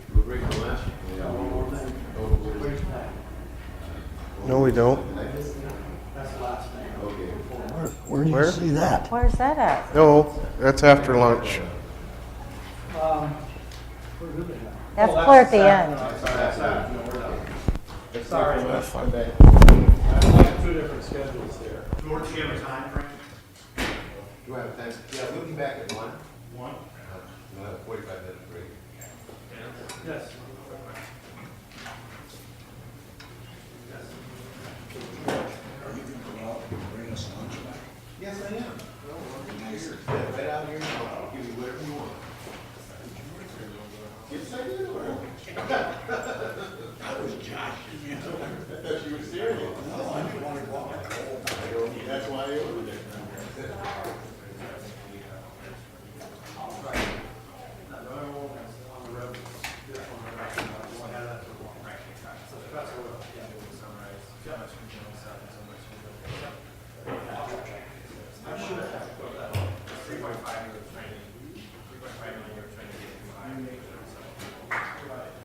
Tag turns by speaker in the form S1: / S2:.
S1: Oh,
S2: No, we don't.
S3: Where do you
S2: Where?
S3: see that?
S4: Where's that at?
S2: No, that's after lunch.
S4: That's clear at the end.
S5: Sorry, but I have two different schedules there.
S6: George, do you have a time frame?
S1: Do I have time? Yeah, we'll be back at one.
S6: One?
S1: We'll have a forty-five minute break.
S6: Yes.
S1: Yes, I am. Yeah, Right out here, I'll give you whatever you want. Yes, I do. I was joshing you. I thought you were serious. No, I didn't want to walk. That's why I ordered it.
S6: That's what, yeah, summarize.